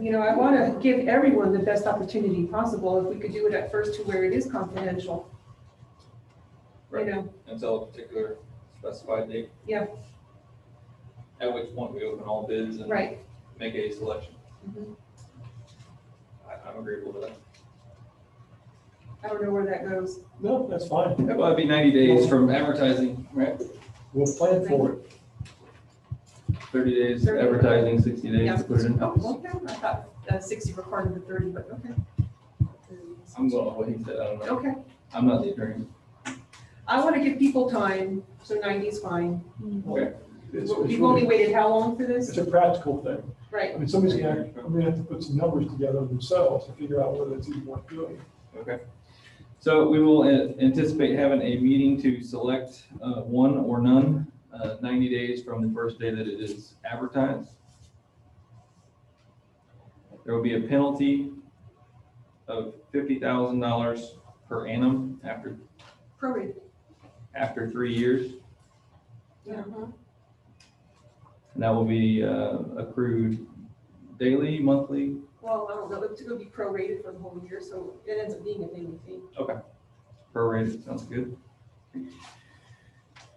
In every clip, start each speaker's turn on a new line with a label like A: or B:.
A: You know, I want to give everyone the best opportunity possible. If we could do it at first to where it is confidential. You
B: Right.
A: know,
B: until a particular specified date.
A: Yeah.
B: At which point we open all bids and
A: right.
B: make a selection.
A: Mhm.
B: I, I'm agreeable to that.
A: I don't know where that goes.
C: No, that's fine.
B: Well, it'd be ninety days from advertising, right?
C: We'll plan for it.
B: Thirty days
A: 30.
B: advertising, sixty days
A: Yeah.
B: to put it in.
A: Oh, okay. I thought uh, sixty were part of the thirty, but okay.
B: I'm going with what he said, I don't know.
A: Okay.
B: I'm not the attorney.
A: I want to give people time, so ninety's fine.
B: Okay.
C: It's, it's
A: We've only
C: really,
A: waited how long for
C: it's
A: this?
C: a practical thing.
A: Right.
C: I mean, somebody's gonna, I'm gonna have to put some numbers together themselves to figure out whether it's even worth doing.
B: Okay. So we will a- anticipate having a meeting to select uh, one or none, uh, ninety days from the first day that it is advertised. There will be a penalty of fifty thousand dollars per annum after,
A: Prorated.
B: after three years.
A: Uh-huh.
B: And that will be uh, accrued daily, monthly.
A: Well, I don't know. It's going to be prorated for the whole year, so it ends up being a daily thing.
B: prorated, sounds good.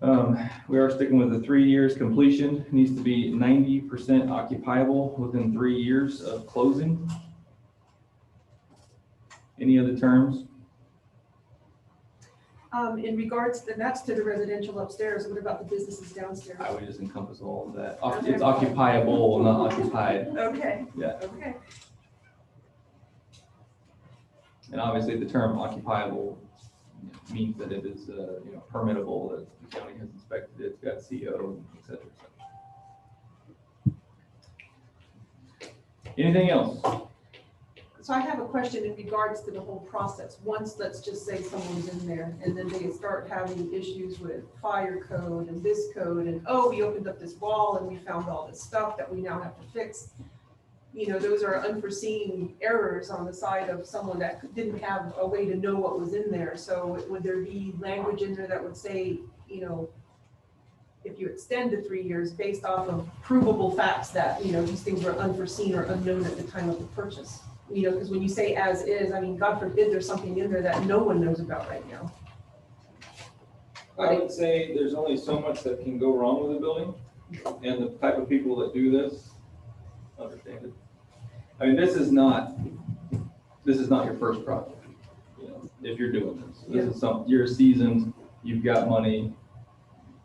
B: Um, We are sticking with the three years completion, needs to be ninety percent occupiable within three years of closing. Any other terms?
A: Um, in regards, then that's to the residential upstairs. What about the businesses downstairs?
B: I would just encompass all of that. Oc- It's occupiable, not occupied.
A: Okay.
B: Yeah.
A: Okay.
B: And obviously, the term occupiable means that it is, uh, you know, permittable, that the county has inspected it, it's got CO, et cetera, et cetera. Anything else?
A: So I have a question in regards to the whole process. Once, let's just say someone's in there and then they start having issues with fire code and this code and, oh, we opened up this wall and we found all this stuff that we now have to fix. You know, those are unforeseen errors on the side of someone that didn't have a way to know what was in there. So would there be language in there that would say, you know, if you extend the three years based off of provable facts that, you know, these things were unforeseen or unknown at the time of the purchase? you know, because when you say as is, I mean, God forbid, there's something in there that no one knows about right now.
B: I would say there's only so much that can go wrong with a building, and the type of people that do this understand it. I mean, this is not, this is not your first project, you know, if you're doing this. This is some, you're seasoned, you've got money,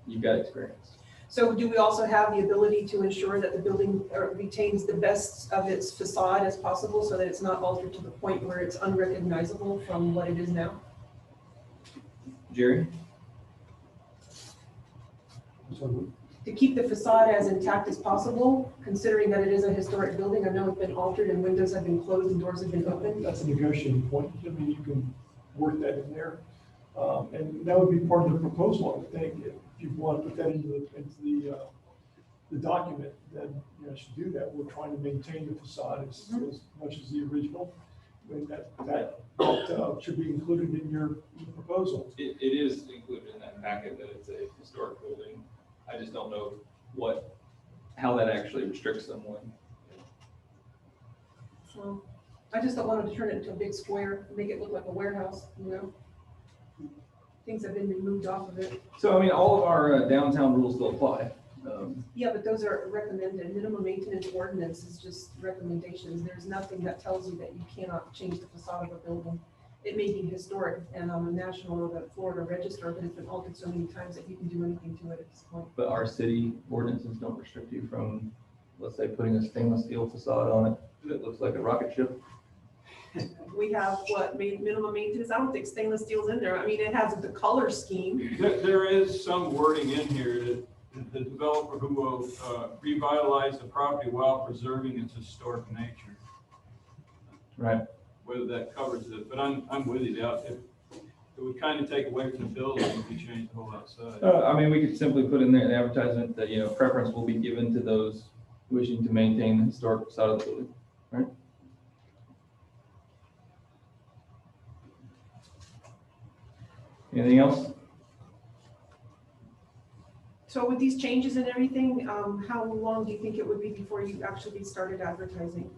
B: you've got experience.
A: So do we also have the ability to ensure that the building uh, retains the best of its facade as possible so that it's not altered to the point where it's unrecognizable from what it is now?
B: Jerry?
C: So
A: To keep the facade as intact as possible, considering that it is a historic building, I know it's been altered and windows have been closed and doors have been opened.
C: that's a negotiating point. I mean, you can work that in there. Um, and that would be part of the proposal, I would think, if you want to put that into the, into the, uh, the document, then, you know, should do that. We're trying to maintain the facade as, as much as the original. I mean, that, that, uh, should be included in your proposal.
B: It, it is included in that packet that it's a historic building. I just don't know what, how that actually restricts someone.
A: So I just don't want to turn it into a big square, make it look like a warehouse, you know? Things have been removed off of it.
B: So, I mean, all of our uh, downtown rules still apply. Um,
A: Yeah, but those are recommended, minimum maintenance ordinance is just recommendations, there's nothing that tells you that you cannot change the facade of a building. It may be historic and on the national or the Florida register, but it's been altered so many times that you can do anything to it at this point.
B: But our city ordinances don't restrict you from, let's say, putting a stainless steel facade on it that looks like a rocket ship.
A: We have what, ma- minimum maintenance, I don't think stainless steel's in there, I mean, it has the color scheme,
D: There, there is some wording in here that that the developer who will uh, revitalize the property while preserving its historic nature,
B: Right.
D: whether that covers it, but I'm, I'm with you, that it, it would kind of take away from the building if you change the whole outside.
B: Uh, I mean, we could simply put in there an advertisement that, you know, preference will be given to those wishing to maintain the historic facade of the building. Anything else?
A: so with these changes and everything, um, how long do you think it would be before you actually started advertising?